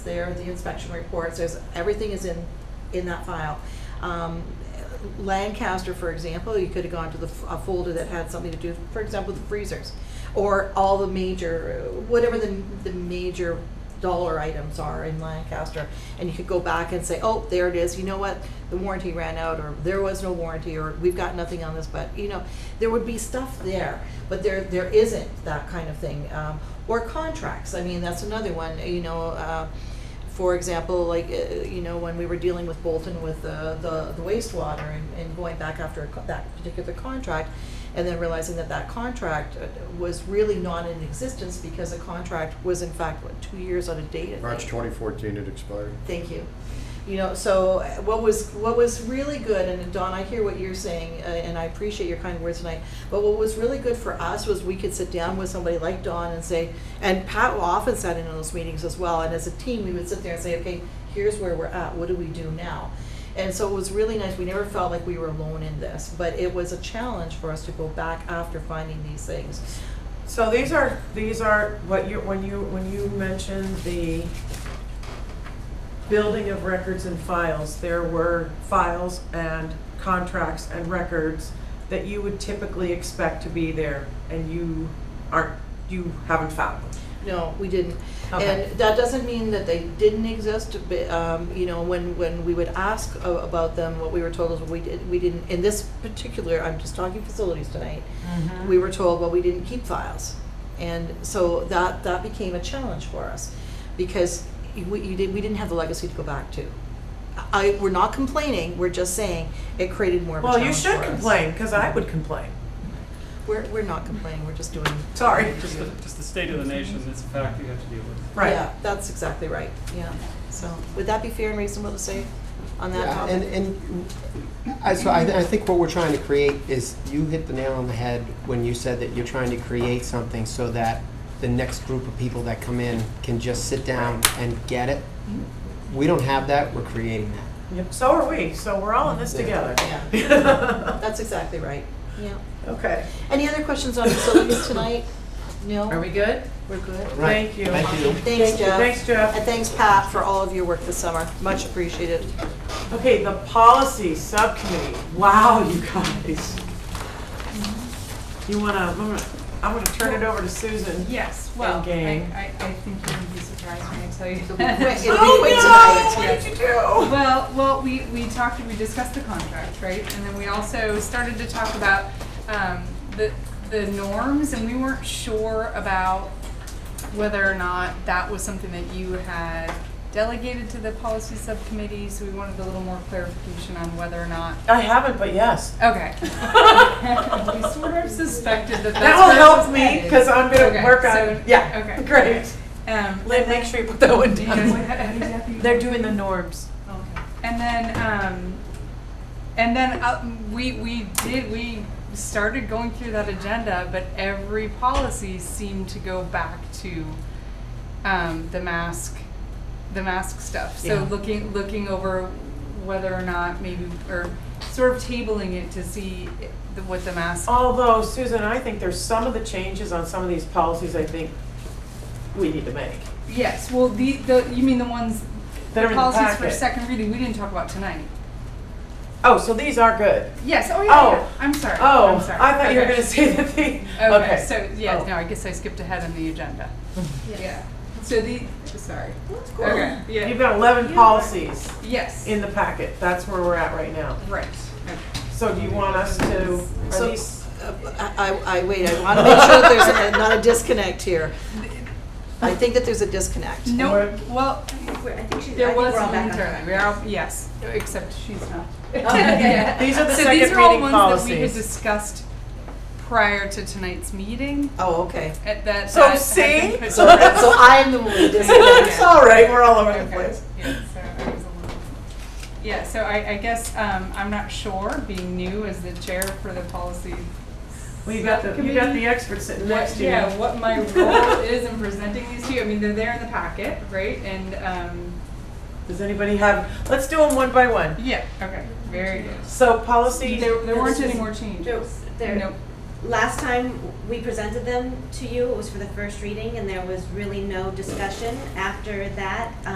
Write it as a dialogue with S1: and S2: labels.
S1: there, are the inspection reports, there's, everything is in, in that file. Um, Lancaster, for example, you could have gone to the, f- a folder that had something to do, for example, the freezers, or all the major, whatever the, the major dollar items are in Lancaster, and you could go back and say, oh, there it is, you know what, the warranty ran out, or there was no warranty, or we've got nothing on this, but, you know, there would be stuff there, but there, there isn't that kind of thing. Um, Or contracts, I mean, that's another one, you know, uh, for example, like, uh, you know, when we were dealing with Bolton with uh, the the wastewater and- and going back after a co- that particular contract, and then realizing that that contract uh, was really not in existence because the contract was in fact, what, two years out of date? I think.
S2: March 2014 it expired.
S1: Thank you. You know, so uh, what was, what was really good, and Don, I hear what you're saying, uh, and I appreciate your kind words tonight, but what was really good for us was we could sit down with somebody like Don and say, and Pat often sat in on those meetings as well, and as a team, we would sit there and say, okay, here's where we're at, what do we do now? And so it was really nice, we never felt like we were alone in this, but it was a challenge for us to go back after finding these things.
S3: So these are, these are what you, when you, when you mentioned the building of records and files, there were files and contracts and records that you would typically expect to be there and you aren't, you haven't found them.
S1: No, we didn't.
S3: Okay.
S1: And that doesn't mean that they didn't exist, but, um, you know, when, when we would ask a- about them, what we were told is we did, we didn't, in this particular, I'm just talking facilities tonight,
S3: Uh-huh. Mm-hmm.
S1: we were told, well, we didn't keep files. And so that, that became a challenge for us because we, you did, we didn't have the legacy to go back to. I, we're not complaining, we're just saying it created more of a
S3: Well,
S1: challenge
S3: you should
S1: for us.
S3: complain, cause I would complain.
S1: We're, we're not complaining, we're just doing.
S3: Sorry.
S4: Just the, just the state of the nation, it's a fact you have to deal with.
S1: Yeah,
S3: Right.
S1: that's exactly right, yeah. So, would that be fair and reasonable to say on that
S5: Yeah,
S1: topic?
S5: and, and I, so I, I think what we're trying to create is, you hit the nail on the head when you said that you're trying to create something so that the next group of people that come in can just sit down and get it.
S1: Mm-hmm.
S5: We don't have that, we're creating that.
S3: Yep, So are we, so we're all in this together.
S1: Yeah, that's exactly right, yeah.
S3: Okay.
S1: Any other questions on facilities tonight? No?
S6: Are we good?
S1: We're good?
S5: Right.
S3: Thank you.
S5: Thank you.
S1: Thanks, Jeff.
S3: Thanks, Jeff.
S1: And thanks, Pat, for all of your work this summer, much appreciated.
S3: Okay, the policy subcommittee. Wow, you guys. You wanna, I'm gonna, I'm gonna turn it over to Susan.
S6: Yes, well, I,
S3: game.
S6: I, I think you're gonna be surprised when I tell you.
S1: It'll be quick. It'll be quick
S3: Oh,
S1: tonight.
S3: no, what did you do?
S6: Well, well, we, we talked, we discussed the contract, right? And then we also started to talk about, um, the, the norms, and we weren't sure about whether or not that was something that you had delegated to the policy subcommittee, so we wanted a little more clarification on whether or not,
S3: I haven't, but yes.
S6: okay. We sort of suspected that that's
S3: That
S6: where
S3: will
S6: it
S3: help
S6: was
S3: me,
S6: headed.
S3: cause I'm gonna
S6: Okay,
S3: work
S6: so-
S3: on, yeah,
S6: okay.
S3: great.
S6: Um,
S3: Lynn, make sure you put that one
S6: Do you guys-
S3: down.
S6: how- how do you deputy-
S3: the norms.
S6: Okay. And then, um, and then uh, we we did we started going through that agenda, but every policy seemed to go back to um, the mask, the mask stuff. So
S3: Yeah.
S6: looking looking over whether or not maybe or sort of tabling it to see i- the, what the mask.
S3: Although, Susan, I think there's some of the changes on some of these policies I think we need to make.
S6: Yes. Well, the the you mean the ones
S3: That are in the
S6: policies for
S3: packet.
S6: second reading we didn't talk about tonight.
S3: Oh, so these are good.
S6: Yes. Oh yeah.
S3: Oh.
S6: yeah. I'm sorry.
S3: Oh,
S6: I'm
S3: I
S6: sorry.
S3: thought you were
S6: Okay.
S3: gonna say that the, okay.
S6: Okay, so, yeah,
S3: Oh.
S6: no, I guess I skipped ahead on the agenda. Yeah. So the, sorry. Okay,
S3: You've
S6: yeah.
S3: got 11 policies
S6: Yes.
S3: in the packet. That's where we're at right now.
S6: Right.
S3: So do you want us to, are
S1: So-
S3: these,
S1: Uh, I, I, I- wait, I want to make sure that there's a- not a disconnect here. I think that there's a disconnect.
S6: No,
S3: Or-
S6: well,
S7: Wait, I think she's, I
S6: there
S7: think we're
S6: was
S7: all
S6: one
S7: back on.
S6: internally, we are, all- yes, except she's not.
S7: yeah.
S3: these are the
S6: Oh, So these
S3: second
S6: are all
S3: reading
S6: ones that we had
S3: policies?
S6: discussed prior to tonight's meeting,
S1: Oh, okay.
S6: at that.
S3: So
S6: that had
S3: see?
S6: been put
S1: So,
S6: forward.
S1: that- so I'm the one who disconnected.
S3: It's all right, we're all over the
S6: Okay.
S3: place.
S6: Yeah, so I was a little- Yeah, so I, I guess, um, I'm not sure, being new as the chair for the policy.
S3: Well, you got the, you got the
S6: subcommittee,
S3: expert sitting
S6: what-
S3: next to
S6: Yeah,
S3: you.
S6: what my role is in presenting these to you, I mean, they're there in the packet, right, and, um,
S3: Does anybody have, let's do them one by one.
S6: yeah, okay, very good.
S3: So policy,
S6: There, there weren't any more changes.
S7: No, there-
S6: Nope.
S7: Last time we presented them to you, it was for the first reading, and there was really no discussion after that.